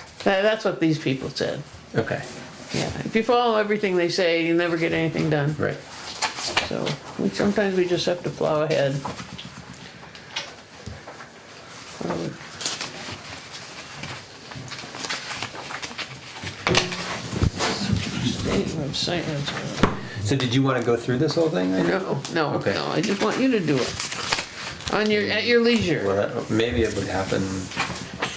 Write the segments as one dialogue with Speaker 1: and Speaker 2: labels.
Speaker 1: Uh, That's what these people said.
Speaker 2: Okay,
Speaker 1: Yeah, if you follow everything they say, you never get anything done.
Speaker 2: right.
Speaker 1: So we, sometimes we just have to plow ahead. Um, State website, that's-
Speaker 2: So did you want to go through this whole thing? then?
Speaker 1: no, no,
Speaker 2: Okay.
Speaker 1: no, I just want you to do it. On your, at your leisure.
Speaker 2: Well, that- maybe it would happen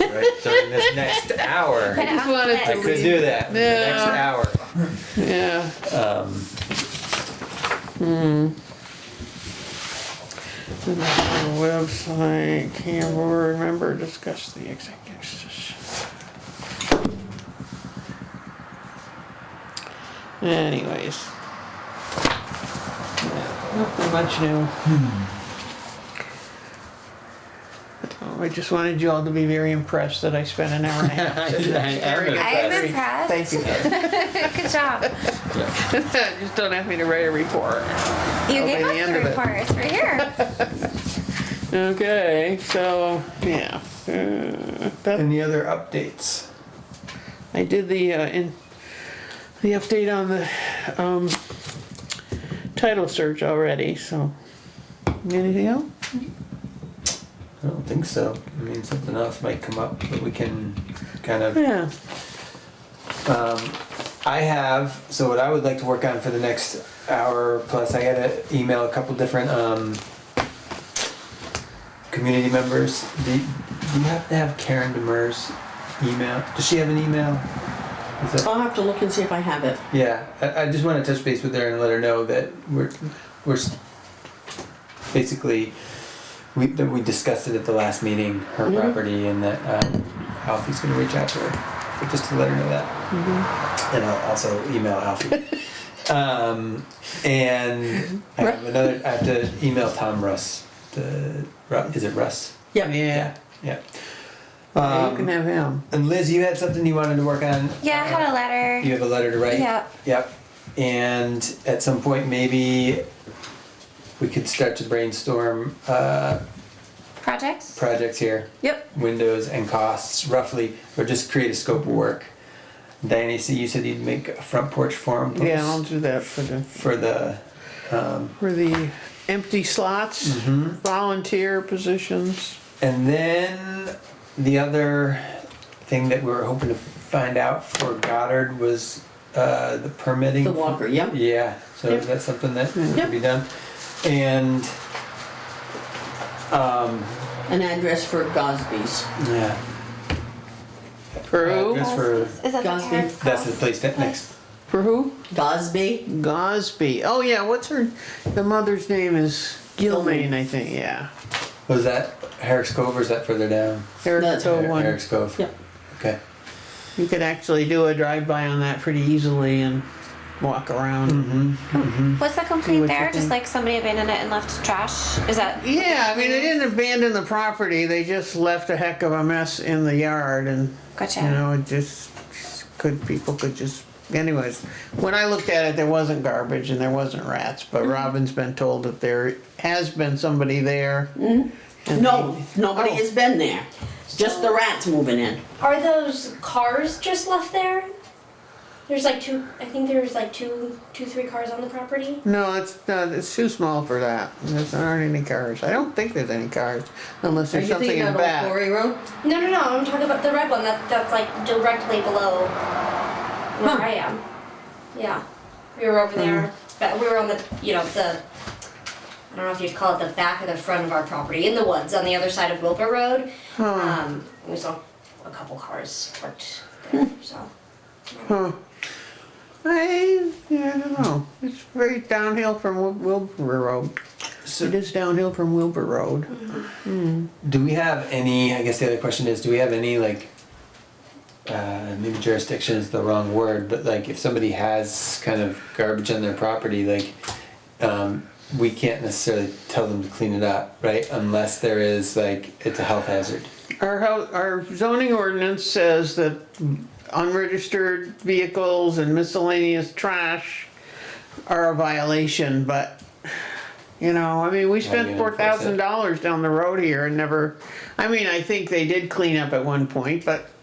Speaker 2: right during this next hour.
Speaker 1: I just wanted
Speaker 2: I
Speaker 1: to
Speaker 2: could
Speaker 1: read,
Speaker 2: do that, in the next
Speaker 1: Yeah.
Speaker 2: hour.
Speaker 1: yeah. Hmm.
Speaker 2: Um,
Speaker 1: Website, can remember, discuss the executive session. Anyways. Nothing much new. Hmm. Oh, I just wanted you all to be very impressed that I spent an hour and a half. sitting
Speaker 2: I am
Speaker 1: staring at-
Speaker 2: impressed.
Speaker 3: I'm impressed.
Speaker 1: Thank you.
Speaker 3: Good job.
Speaker 2: yeah.
Speaker 1: Just don't have me to write a report.
Speaker 3: You
Speaker 1: That'll be
Speaker 3: gave
Speaker 1: the
Speaker 3: us
Speaker 1: end
Speaker 3: the
Speaker 1: of it.
Speaker 3: report. It's right here.
Speaker 1: Okay, so, yeah. Uh, that-
Speaker 2: Any other updates?
Speaker 1: I did the, uh, in, the update on the, um, title search already, so. Anything else?
Speaker 2: I don't think so. I mean, something else might come up that we can kind of
Speaker 1: Yeah,
Speaker 2: Um, I have, so what I would like to work on for the next hour plus, I gotta email a couple different, um, community members. Do, do you have to have Karen Demers email? Does she have an email? Is that-
Speaker 4: I'll have to look and see if I have it.
Speaker 2: yeah, I, I just wanna touch base with her and let her know that we're, we're s- basically, we, that we discussed it at the last meeting, her
Speaker 4: Mm-hmm.
Speaker 2: property, and that, um, Alfie's gonna reach out to her, but just to let her know that and I'll also email Alfie. um, and I have another. I have to email Tom Russ. The Ru- is it Russ?
Speaker 4: Yeah.
Speaker 1: yeah,
Speaker 2: Yeah.
Speaker 1: Yeah, you can
Speaker 2: Um,
Speaker 1: have him.
Speaker 2: and Liz, you had something you wanted to work on.
Speaker 3: Yeah, I had a
Speaker 2: You
Speaker 3: letter.
Speaker 2: have a letter to write.
Speaker 3: Yeah.
Speaker 2: Yep. And at some point, maybe we could start to brainstorm uh,
Speaker 3: Projects.
Speaker 2: projects here.
Speaker 4: Yep.
Speaker 2: windows and costs roughly, or just create a scope of work. Diane, so you said you'd make a front porch forum post
Speaker 1: Yeah, I'll do that for the,
Speaker 2: for the, um,
Speaker 1: for the empty slots, volunteer positions.
Speaker 2: and then the other thing that we were hoping to find out for Goddard was uh, the permitting.
Speaker 4: The walker, yep.
Speaker 2: Yeah, so
Speaker 4: Yep.
Speaker 2: that's something that
Speaker 4: Yep.
Speaker 2: could be done, and um,
Speaker 4: An address for Gosby's.
Speaker 2: yeah.
Speaker 1: For who?
Speaker 2: Address for
Speaker 3: Is that the
Speaker 4: Gosby.
Speaker 3: Karen's
Speaker 2: that's the
Speaker 3: house?
Speaker 2: place that next.
Speaker 1: For who?
Speaker 4: Gosby?
Speaker 1: Gosby. Oh, yeah, what's her, the mother's name is Gilmain,
Speaker 4: Gilmain.
Speaker 1: I think, yeah.
Speaker 2: Was that Herrick's Cove or is that further down?
Speaker 1: Eric
Speaker 4: That's-
Speaker 1: Cove one.
Speaker 2: Eric's Cove.
Speaker 4: Yep.
Speaker 2: Okay.
Speaker 1: You could actually do a drive-by on that pretty easily and walk around.
Speaker 3: Was that
Speaker 1: See
Speaker 3: complete
Speaker 1: what you
Speaker 3: there? Just
Speaker 1: think.
Speaker 3: like somebody abandoned it and left trash? Is that?
Speaker 1: Yeah, I mean, they didn't abandon the property, they just left a heck of a mess in the yard and,
Speaker 3: Gotcha.
Speaker 1: you know, it just, could, people could just, anyways. When I looked at it, there wasn't garbage and there wasn't rats,
Speaker 4: Mm-hmm.
Speaker 1: but Robin's been told that there has been somebody there.
Speaker 4: Mm.
Speaker 1: and
Speaker 4: No, nobody
Speaker 1: Oh.
Speaker 4: has been there. Just the rats moving in.
Speaker 5: Are those cars just left there? There's like two. I think there's like two, two, three cars on the property.
Speaker 1: No, it's not, it's too small for that. There's there aren't any cars. I don't think there's any cars unless
Speaker 4: Are
Speaker 1: there's
Speaker 4: you
Speaker 1: something
Speaker 4: thinking
Speaker 1: in
Speaker 4: about
Speaker 1: back.
Speaker 4: Old Quarry Road?
Speaker 5: No, no, no. I'm talking about the red one. That that's like directly below where I am. Yeah, we were over there, but we were on the you know the. I don't know if you'd call it the back or the front of our property in the woods on the other side of Wilbur Road. Um, we saw a couple cars parked there, so.
Speaker 1: Huh. I, yeah, I don't know. It's very downhill from Wil- Wilbur Road.
Speaker 2: So
Speaker 1: It is downhill from Wilbur Road.
Speaker 2: do we have any, I guess the other question is, do we have any like, uh, maybe jurisdiction is the wrong word, but like if somebody has kind of garbage on their property, like, um, we can't necessarily tell them to clean it up, right? Unless there is like, it's a health hazard.
Speaker 1: Our hou- our zoning ordinance says that unregistered vehicles and miscellaneous trash are a violation, but, you know, I mean, we
Speaker 2: you
Speaker 1: spent four
Speaker 2: enforce
Speaker 1: thousand
Speaker 2: it?
Speaker 1: dollars down the road here and never, I mean, I think they did clean up at one point, but